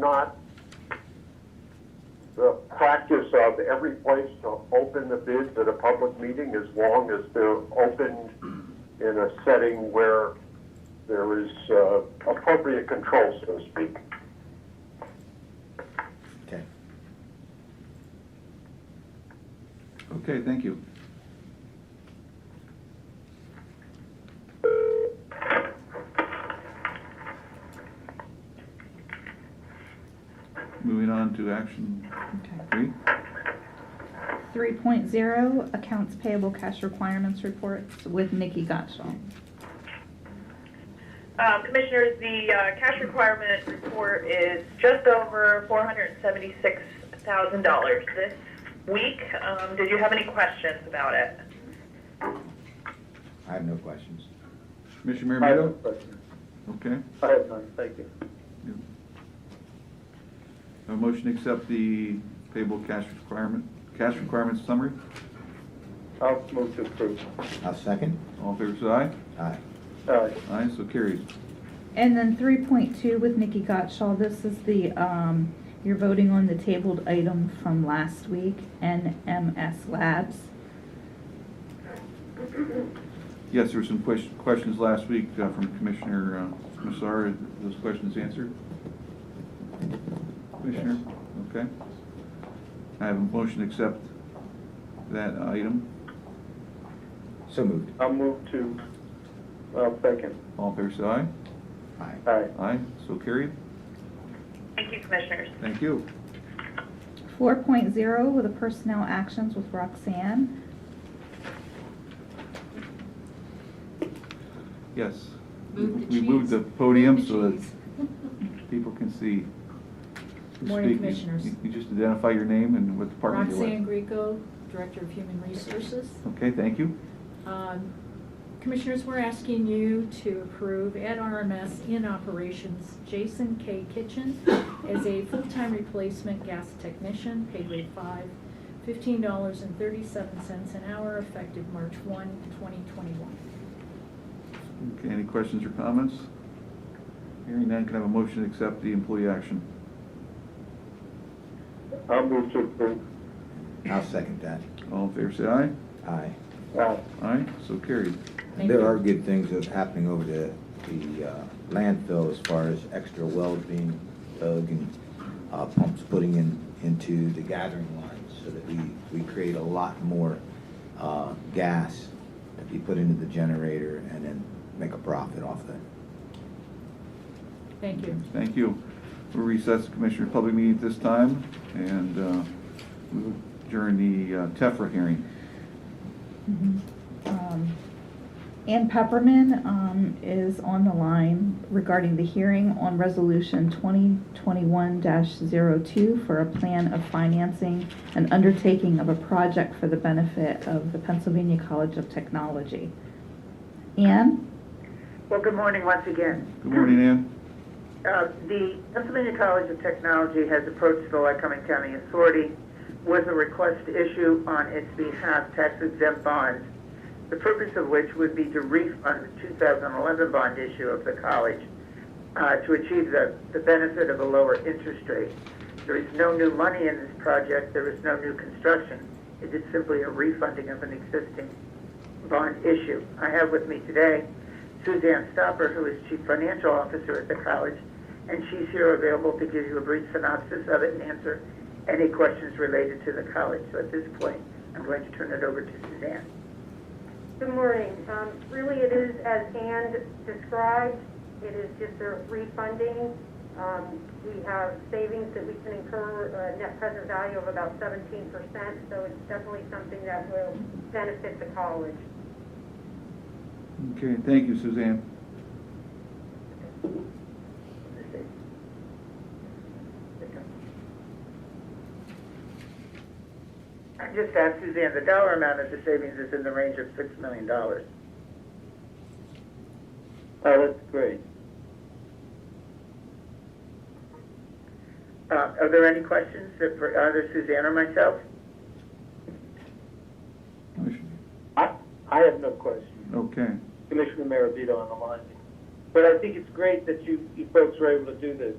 not the practice of every place to open the bids at a public meeting as long as they're opened in a setting where there is uh, appropriate control, so to speak. Okay. Okay, thank you. Moving on to action three. 3.0 Accounts Payable Cash Requirements Reports with Nikki Gottschall. Um, Commissioners, the uh, cash requirement report is just over $476,000 this week. Um, Did you have any questions about it? I have no questions. Commissioner I have no Maramito? question. Okay. I have none, thank you. A motion to accept the payable cash requirement, cash requirements summary. I'll move to approve. I'll second. All in favor, say aye. Aye. Aye. Aye, so carries. And then 3.2 with Nikki Gottschall, this is the, um, you're voting on the tabled item from last week, NMS Labs. Yes, there were some ques- questions last week uh, from Commissioner uh, Massar. Are Those questions answered? Commissioner? Okay. I have a motion to accept that item. So moved. I'll move to, uh, second. All in favor, say aye. Aye. Aye. Aye, so carried. Thank you, Commissioners. Thank you. 4.0 with the Personnel Actions with Roxanne. Yes. Move the We moved cheese. the podium Move the so that cheese. people can see. who's Morning, speaking. Commissioners. You- You just identify your name and what department you're with. Roxanne Greco, Director of Human Resources. Okay, thank you. Um, Commissioners, we're asking you to approve at RMS in operations Jason K. Kitchen as a full-time replacement gas technician, pay grade five, fifteen dollars and thirty-seven cents an hour, effective March one, twenty twenty-one. Okay, any questions or comments? Hearing none, can I have a motion to accept the employee action? I'll move to approve. I'll second that. All in favor, say aye. Aye. Aye. Aye, so carried. Thank There you. are good things that's happening over the, the uh, landfill as far as extra wells being dug and uh, pumps putting in, into the gathering lines so that we, we create a lot more uh, gas that we put into the generator and then make a profit off of it. Thank you. Thank you. We'll recess the Commissioner Public Meeting at this time and uh, we'll adjourn the uh, TEFRA hearing. Um, Ann Pepperman um, is on the line regarding the hearing on Resolution 2021-02 for a plan of financing and undertaking of a project for the benefit of the Pennsylvania College of Technology. Ann? Well, good morning once again. Good morning, Ann. Uh, The Pennsylvania College of Technology has approached the Lycoming County Authority with a request to issue on its behalf tax exempt bonds, the purpose of which would be to refund the 2011 bond issue of the college uh, to achieve the the benefit of a lower interest rate. There is no new money in this project, there is no new construction. It is simply a refunding of an existing bond issue. I have with me today Suzanne Stopper, who is Chief Financial Officer at the college, and she's here available to give you a brief synopsis of it and answer any questions related to the college. So at this point, I'm going to turn it over to Suzanne. Good morning. Um, Really, it is as Ann described, it is just a refunding. Um, We have savings that we can incur, a net present value of about 17%, so it's definitely something that will benefit the college. Okay, thank you, Suzanne. I just asked Suzanne, the dollar amount of the savings is in the range of $6 million. Oh, that's great. Uh, Are there any questions that for either Suzanne or myself? Commissioner- I, I have no question. Okay, Commissioner Maravito on the line. But I think it's great that you, you folks were able to do this.